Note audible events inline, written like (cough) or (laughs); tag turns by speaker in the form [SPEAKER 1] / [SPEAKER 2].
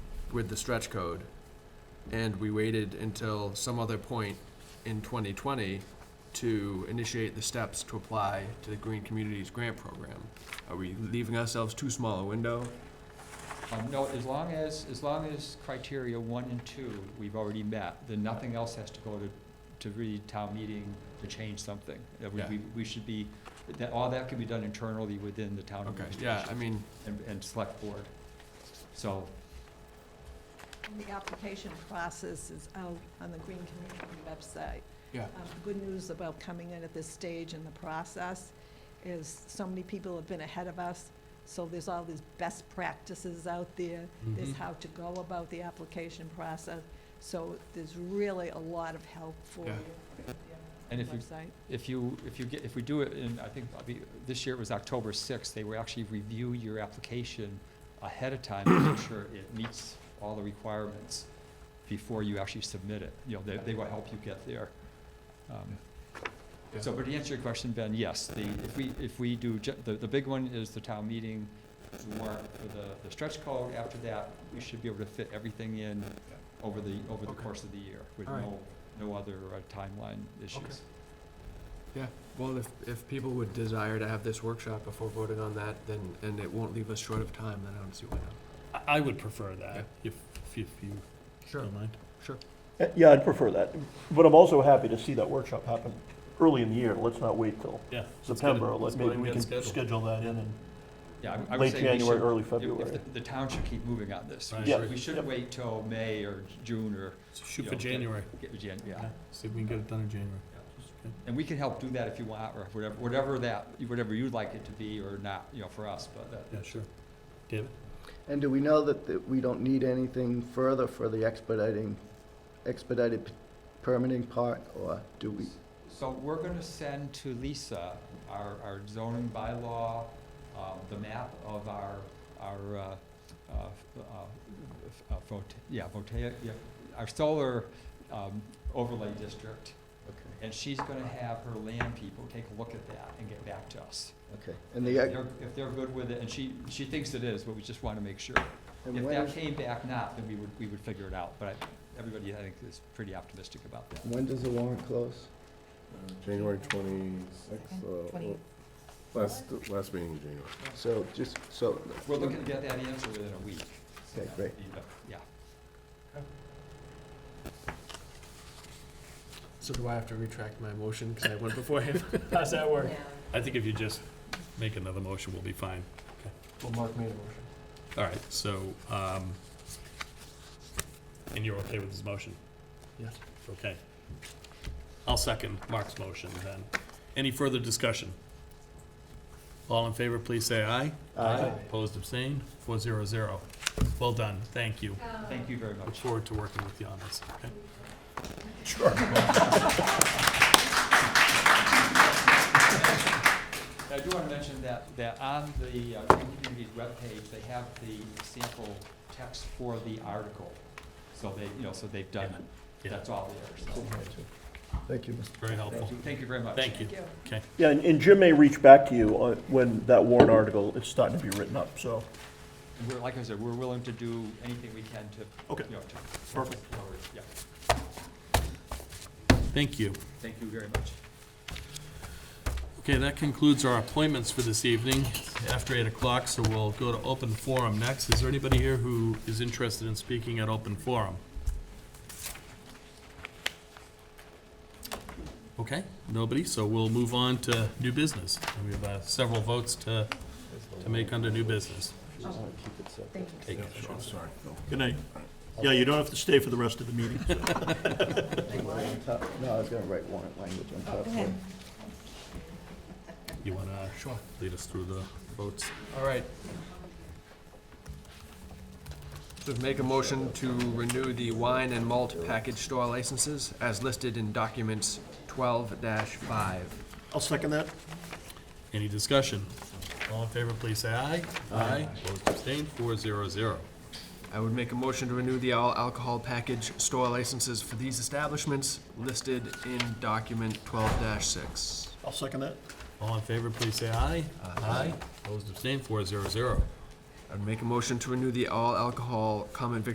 [SPEAKER 1] with the stretch code, and we waited until some other point in 2020 to initiate the steps to apply to the Green Communities Grant Program. Are we leaving ourselves too small a window?
[SPEAKER 2] Um, no, as long as, as long as criteria one and two, we've already met, then nothing else has to go to, to read town meeting to change something. Uh, we-
[SPEAKER 1] Yeah.
[SPEAKER 2] We, we should be, that, all that can be done internally within the town
[SPEAKER 1] Okay, yeah, I
[SPEAKER 2] administration
[SPEAKER 1] mean,
[SPEAKER 2] and, and select board. So,
[SPEAKER 3] And The application process is out on the Green Community website.
[SPEAKER 1] Yeah.
[SPEAKER 3] Um, the Good news about coming in at this stage in the process is so many people have been ahead of us, so there's all these best practices out there. There's
[SPEAKER 1] Mhm.
[SPEAKER 3] how to go about the application process, so there's really a lot of help for you.
[SPEAKER 1] Yeah.
[SPEAKER 3] on
[SPEAKER 2] And
[SPEAKER 3] the
[SPEAKER 2] if you-
[SPEAKER 3] website.
[SPEAKER 2] if you, if you get, if we do it in, I think, I'll be- this year it was October sixth, they will actually review your application ahead of time to make sure it meets all the requirements before you actually submit it. You know, they, they will help you get there. Um,
[SPEAKER 1] Yeah.
[SPEAKER 2] So, but to answer your question, Ben, yes, the, if we, if we do, ju- the, the big one is the town meeting warrant for the, the stretch code. After that, we should be able to fit everything in over the, over the
[SPEAKER 1] Okay.
[SPEAKER 2] course of the year with
[SPEAKER 1] All right.
[SPEAKER 2] no, no other uh, timeline issues.
[SPEAKER 1] well, if, if people would desire to have this workshop before voting on that, then, and it won't leave us short of time, then I don't see why not.
[SPEAKER 4] I- I would prefer that, if, if you don't mind.
[SPEAKER 5] Uh, Yeah, I'd prefer that, but I'm also happy to see that workshop happen early in the year, let's not wait till
[SPEAKER 4] Yeah. let's get it-
[SPEAKER 5] September,
[SPEAKER 4] let's
[SPEAKER 5] let,
[SPEAKER 4] go ahead
[SPEAKER 5] maybe
[SPEAKER 4] and
[SPEAKER 5] we
[SPEAKER 4] get it
[SPEAKER 5] can
[SPEAKER 4] scheduled.
[SPEAKER 5] schedule that in
[SPEAKER 2] Yeah, I would- I would
[SPEAKER 5] in late
[SPEAKER 2] say we
[SPEAKER 5] January,
[SPEAKER 2] should,
[SPEAKER 5] early
[SPEAKER 2] if- if
[SPEAKER 5] February.
[SPEAKER 2] the- the town should keep moving on this. We
[SPEAKER 4] Right.
[SPEAKER 2] should-
[SPEAKER 5] Yeah.
[SPEAKER 2] We shouldn't wait till May or June or,
[SPEAKER 4] Shoot
[SPEAKER 2] you
[SPEAKER 4] for
[SPEAKER 2] know,
[SPEAKER 4] January.
[SPEAKER 2] get- yeah, yeah.
[SPEAKER 4] See if we can get it done in January.
[SPEAKER 2] And we can help do that if you want, or whatever, whatever that, whatever you'd like it to be or not, you know, for us, but that,
[SPEAKER 4] Yeah, sure. David?
[SPEAKER 6] And do we know that, that we don't need anything further for the expediting, expedited p- permitting part, or do we?
[SPEAKER 2] So we're gonna send to Lisa our, our zoning bylaw, um, the map of our, our, uh, uh, uh, photo, yeah, photo, yeah, our solar, um, overlay district.
[SPEAKER 6] Okay,
[SPEAKER 2] And she's gonna have her land people take a look at that and get back to us.
[SPEAKER 6] okay. And the,
[SPEAKER 2] If
[SPEAKER 6] ex-
[SPEAKER 2] they're- if they're good with it, and she, she thinks it is, but we just wanna make sure.
[SPEAKER 6] and
[SPEAKER 2] If
[SPEAKER 6] when,
[SPEAKER 2] that
[SPEAKER 6] is-
[SPEAKER 2] came back not, then we would, we would figure it out, but I- everybody, I think, is pretty optimistic about that.
[SPEAKER 6] when does the warrant close?
[SPEAKER 7] January twenty-sixth, last, last meeting in January.
[SPEAKER 6] So just, so,
[SPEAKER 2] We're looking to get that answer within a week.
[SPEAKER 6] Okay, great.
[SPEAKER 2] Yeah.
[SPEAKER 1] So do I have to retract my motion, because I went before him?
[SPEAKER 4] (laughs) How's that work? I think if you just make another motion, we'll be fine.
[SPEAKER 1] Well, Mark made a motion.
[SPEAKER 4] All right, so, um, and you're okay with this motion?
[SPEAKER 1] Yes.
[SPEAKER 4] Okay. I'll second Mark's motion then. Any further discussion? All in favor, please say aye.
[SPEAKER 6] Aye.
[SPEAKER 4] Opposed, abstained, four zero zero. Well done, thank you.
[SPEAKER 2] Thank you very
[SPEAKER 4] Look
[SPEAKER 2] much.
[SPEAKER 4] forward to working with you on this, okay?
[SPEAKER 2] I do wanna mention that, that on the uh, Green Communities webpage, they have the sample text for the article. So they, you know, so they've done, it.
[SPEAKER 4] Yeah,
[SPEAKER 2] that's all there, so.
[SPEAKER 6] thank you, Mr.
[SPEAKER 4] very helpful.
[SPEAKER 2] Thank you, thank you very much.
[SPEAKER 4] Thank you.
[SPEAKER 3] Thank you.
[SPEAKER 4] Okay,
[SPEAKER 5] Yeah, and, and Jim may reach back to you on, when that warrant article is starting to be written up, so,
[SPEAKER 2] And we're, like I said, we're willing to do anything we can to,
[SPEAKER 5] Okay.
[SPEAKER 2] you know, to.
[SPEAKER 5] Perfect.
[SPEAKER 2] forward. Yeah,
[SPEAKER 4] thank you.
[SPEAKER 2] thank you very much.
[SPEAKER 4] Okay, that concludes our appointments for this evening after eight o'clock, so we'll go to open forum next. Is there anybody here who is interested in speaking at open forum? Okay, nobody, so we'll move on to new business. And We have uh, several votes to, to make under new business. Thank you.
[SPEAKER 5] good night. Yeah, you don't have to stay for the rest of the meeting.
[SPEAKER 6] No, I was gonna write warrant language on top. of it.
[SPEAKER 4] You wanna lead us through the votes?
[SPEAKER 1] All right. So make a motion to renew the wine and malt package store licenses as listed in documents twelve five.
[SPEAKER 5] I'll second that.
[SPEAKER 4] Any discussion? All in favor, please say aye. Aye. Opposed, abstained, four zero zero.
[SPEAKER 1] I would make a motion to renew the all alcohol package store licenses for these establishments listed in document twelve six.
[SPEAKER 5] I'll second that.
[SPEAKER 4] All in favor, please say aye. Aye. Opposed, abstained, four zero zero.
[SPEAKER 1] I would make a motion to renew the all alcohol common vic